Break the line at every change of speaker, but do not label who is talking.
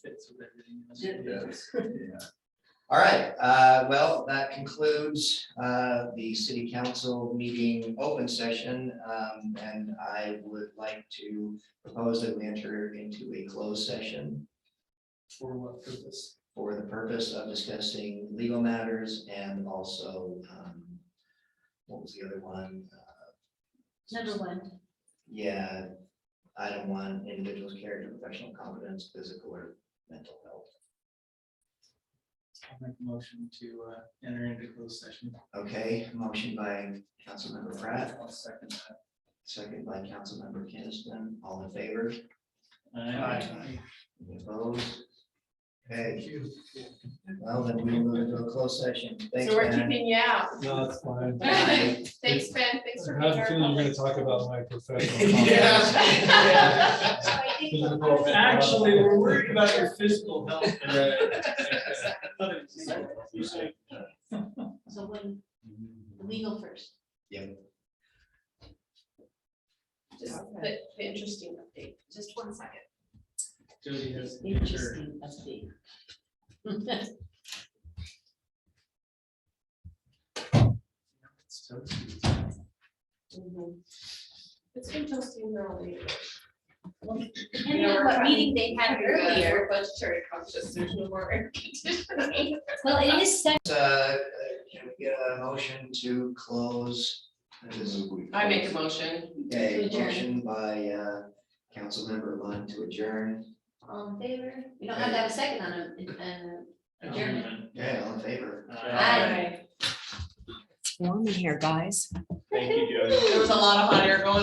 benefits of everything. else.
All right, uh, well, that concludes, uh, the city council meeting open session. Um, and I would like to propose that we enter into a closed session
For what purpose?
for the purpose of discussing legal matters and also, um, what was the other one? Uh,
Number one,
Yeah, item one, individual's character, professional competence, physical or mental health.
I'll make a motion to uh, enter into closed session.
Okay, motion by Councilmember Pratt,
I'll second
second by Councilmember Kinnison, all in favor?
that.
Aye. Any Opposed? Okay,
Thank you.
well, then we move into a closed session. Thanks,
So we're
Ben.
keeping you out.
No, it's fine.
Bye.
Thanks, Ben. Thanks for
I
being
have
our.
a feeling you're gonna
public-
talk about my professional.
Yeah.
Yeah.
so I think
Physical fit.
Actually, we're worried about your physical health. Thought it was- you said-
so when, legal first.
Just the, the interesting update. Just one second.
Jody has. the picture.
Interesting update.
It's toast.
Mm-hmm.
It's been toasting all day.
And then what meeting they had earlier,
We're budgetary conscious, there's no more air conditioning.
well, it is set,
Uh, can we get a motion to close? this?
I make a motion.
Okay,
To adjourn.
motion by, uh, Councilmember Lund to adjourn.
all in favor, we don't have to have a second on a, uh, on a adjournment.
Yeah, all in favor?
Aye.
warm in here, guys.
Thank you, Jody.
There was a lot of hot air going